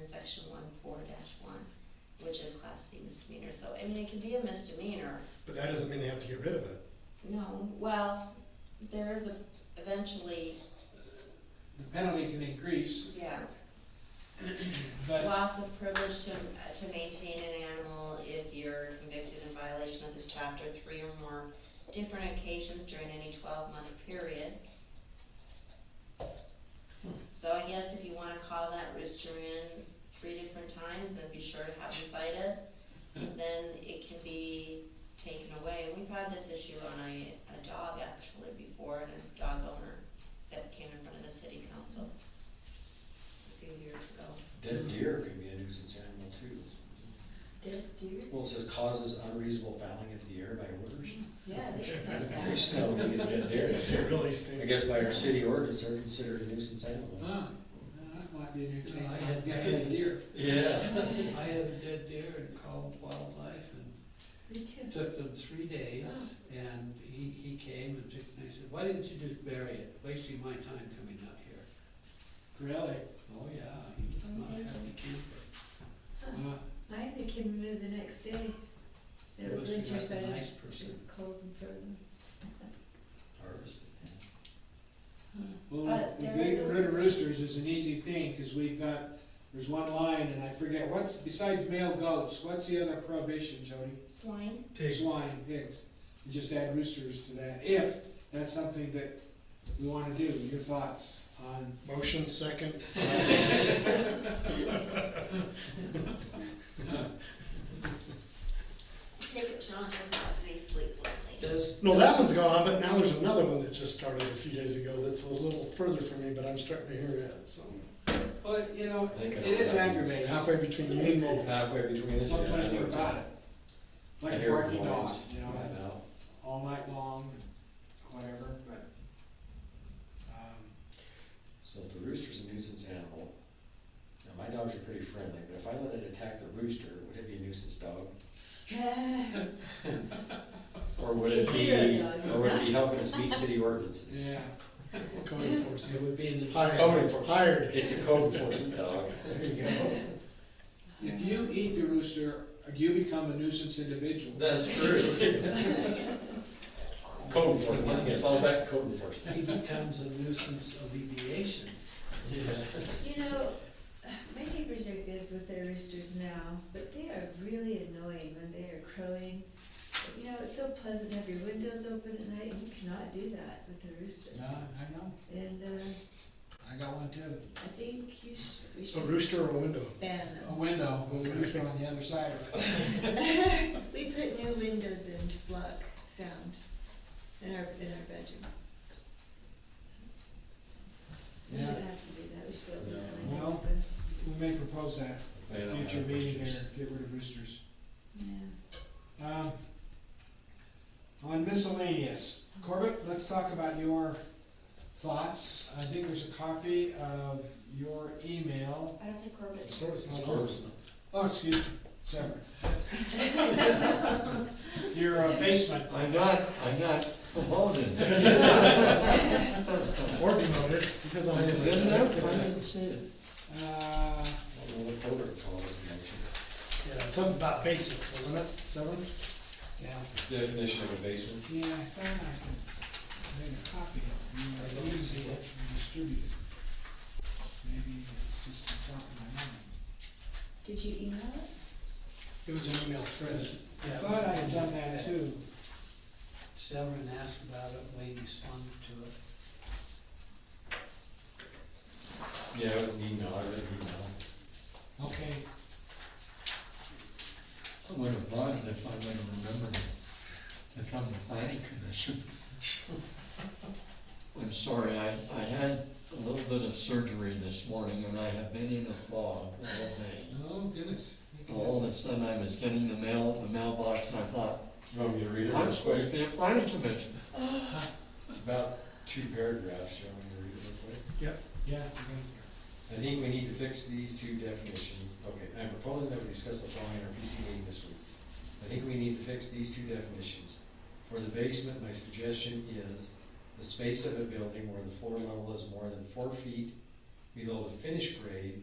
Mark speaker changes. Speaker 1: in section one four dash one, which is class C misdemeanor, so, I mean, it can be a misdemeanor.
Speaker 2: But that doesn't mean they have to get rid of it.
Speaker 1: No, well, there is a, eventually,
Speaker 3: The penalty can increase,
Speaker 1: yeah,
Speaker 3: but uh,
Speaker 1: loss of privilege to, to maintain an animal if you're convicted in violation of this chapter three or more different occasions during any twelve-month period. So I guess if you wanna call that rooster in three different times and be sure to have him cited, then it can be taken away. We've had this issue on a, a dog actually before, and a dog owner that came in front of the city council a few years ago.
Speaker 4: Dead deer can be a nuisance animal too.
Speaker 5: Dead deer?
Speaker 4: Well, it says causes unreasonable fouling of the air by orders.
Speaker 5: Yeah, they smell
Speaker 4: There's
Speaker 5: bad.
Speaker 4: no, we get a dead
Speaker 2: It
Speaker 4: deer.
Speaker 2: really
Speaker 4: I
Speaker 2: stinks.
Speaker 4: guess by our city ordinance, they're considered a nuisance
Speaker 3: no,
Speaker 4: animal.
Speaker 3: no, that might be a new change.
Speaker 6: I had-
Speaker 3: I had a deer.
Speaker 4: Yeah.
Speaker 6: I had a dead deer and called wildlife and
Speaker 5: Me too. Oh.
Speaker 6: it took them three days and he, he came and took, and I said, why didn't you just bury it? Wasting my time coming out here.
Speaker 3: Really?
Speaker 6: Oh, yeah, he was
Speaker 5: Oh,
Speaker 6: not a
Speaker 5: thank
Speaker 6: happy camper. Uh,
Speaker 5: I had the kid move the next day. It was
Speaker 6: must have
Speaker 5: winter,
Speaker 6: been
Speaker 5: so
Speaker 6: a
Speaker 5: it
Speaker 6: Nice person.
Speaker 5: was cold and frozen.
Speaker 4: Harvested, yeah.
Speaker 3: Well,
Speaker 1: But there is
Speaker 3: getting
Speaker 1: a-
Speaker 3: rid of roosters is an easy thing, cause we've got, there's one line and I forget, what's, besides male goats, what's the other prohibition, Jody?
Speaker 1: Swine?
Speaker 3: Swine, pigs. You just add roosters to that, if that's something that we wanna do. Your thoughts on
Speaker 2: Motion second.
Speaker 1: Take it John has not been asleep lately.
Speaker 6: Does.
Speaker 2: No, that one's gone, but now there's another one that just started a few days ago that's a little further from me, but I'm starting to hear it, so.
Speaker 3: Well, you know,
Speaker 4: I think I
Speaker 3: it is
Speaker 4: know.
Speaker 3: aggravating.
Speaker 2: Halfway between you and me.
Speaker 4: Halfway between us.
Speaker 3: There's not
Speaker 4: yeah, I
Speaker 3: much
Speaker 4: know.
Speaker 3: about it.
Speaker 4: I
Speaker 3: Like a
Speaker 4: hear
Speaker 3: barking
Speaker 4: noise.
Speaker 3: dog, you know,
Speaker 4: I know.
Speaker 3: all night long, whatever, but, um,
Speaker 4: So if the rooster's a nuisance animal, now my dogs are pretty friendly, but if I let it attack the rooster, would it be a nuisance dog? Or would it be,
Speaker 5: Yeah, dog.
Speaker 4: or would it be helping us meet city ordinances?
Speaker 3: yeah.
Speaker 2: Code enforcement.
Speaker 6: It would be in the,
Speaker 4: Code
Speaker 2: Hired,
Speaker 4: enforcement.
Speaker 2: hired.
Speaker 4: It's a code enforcement dog. There you go.
Speaker 3: If you eat the rooster, you become a nuisance individual.
Speaker 4: That's true. Code enforcement, let's get followed back to code
Speaker 6: he
Speaker 4: enforcement.
Speaker 6: becomes a nuisance alleviation.
Speaker 5: You know, my neighbors are good with their roosters now, but they are really annoying when they are crowing. You know, it's so pleasant to have your windows open at night, and you cannot do that with a rooster.
Speaker 3: Yeah, I know,
Speaker 5: And, uh,
Speaker 3: I got one too.
Speaker 5: I think you should, we
Speaker 2: A
Speaker 5: should
Speaker 2: rooster or a window?
Speaker 5: ban
Speaker 3: A
Speaker 5: them.
Speaker 3: window with a rooster on the other side of it.
Speaker 5: We put new windows in to block sound in our, in our bedroom. We
Speaker 3: Yeah.
Speaker 5: shouldn't have to do that, we should open
Speaker 4: No.
Speaker 5: our window
Speaker 3: Well,
Speaker 5: open.
Speaker 3: We may propose that,
Speaker 4: They don't have
Speaker 3: future meeting
Speaker 4: roosters.
Speaker 3: here, get rid of roosters.
Speaker 5: Yeah.
Speaker 3: Um, On miscellaneous, Corbett, let's talk about your thoughts. I think there's a copy of your email.
Speaker 1: I don't think Corbett's.
Speaker 2: So it's not ours.
Speaker 3: Oh, excuse me, sorry. Your uh, basement.
Speaker 7: I'm not, I'm not promoting.
Speaker 2: Or demoted, because I.
Speaker 7: Is it good enough? I didn't see it.
Speaker 3: Uh,
Speaker 4: I don't know what code it called, the
Speaker 2: Yeah, something about basements, wasn't it? Seven?
Speaker 3: Yeah,
Speaker 4: motion. Definition of a basement.
Speaker 3: yeah, I thought I could make a copy of it. I didn't see it and distribute it. Maybe it's just the top of my mind.
Speaker 5: Did you email it?
Speaker 2: It was an email thread.
Speaker 3: I thought I had done that too.
Speaker 6: Severin asked about it, Wayne responded to it.
Speaker 4: Yeah, it was an email, I read an email.
Speaker 3: Okay,
Speaker 7: I would have bought it if I would have remembered it from the planning commission. I'm sorry, I, I had a little bit of surgery this morning and I have been in a fog all day.
Speaker 3: oh goodness. You can
Speaker 7: All of
Speaker 3: just-
Speaker 7: a sudden I was getting the mail, the mailbox and I thought,
Speaker 4: You want me to read it
Speaker 7: I'm
Speaker 4: real
Speaker 7: supposed to
Speaker 4: quick?
Speaker 7: be a planning commission.
Speaker 4: It's about two paragraphs, you want me to read it real quick?
Speaker 3: Yeah, you got
Speaker 4: I think we need to fix these two definitions. Okay, I'm proposing that we discuss the following in our PC meeting this week. I think we need to fix these two definitions. For the basement, my suggestion is the space of a building where the floor level is more than four feet below the finished grade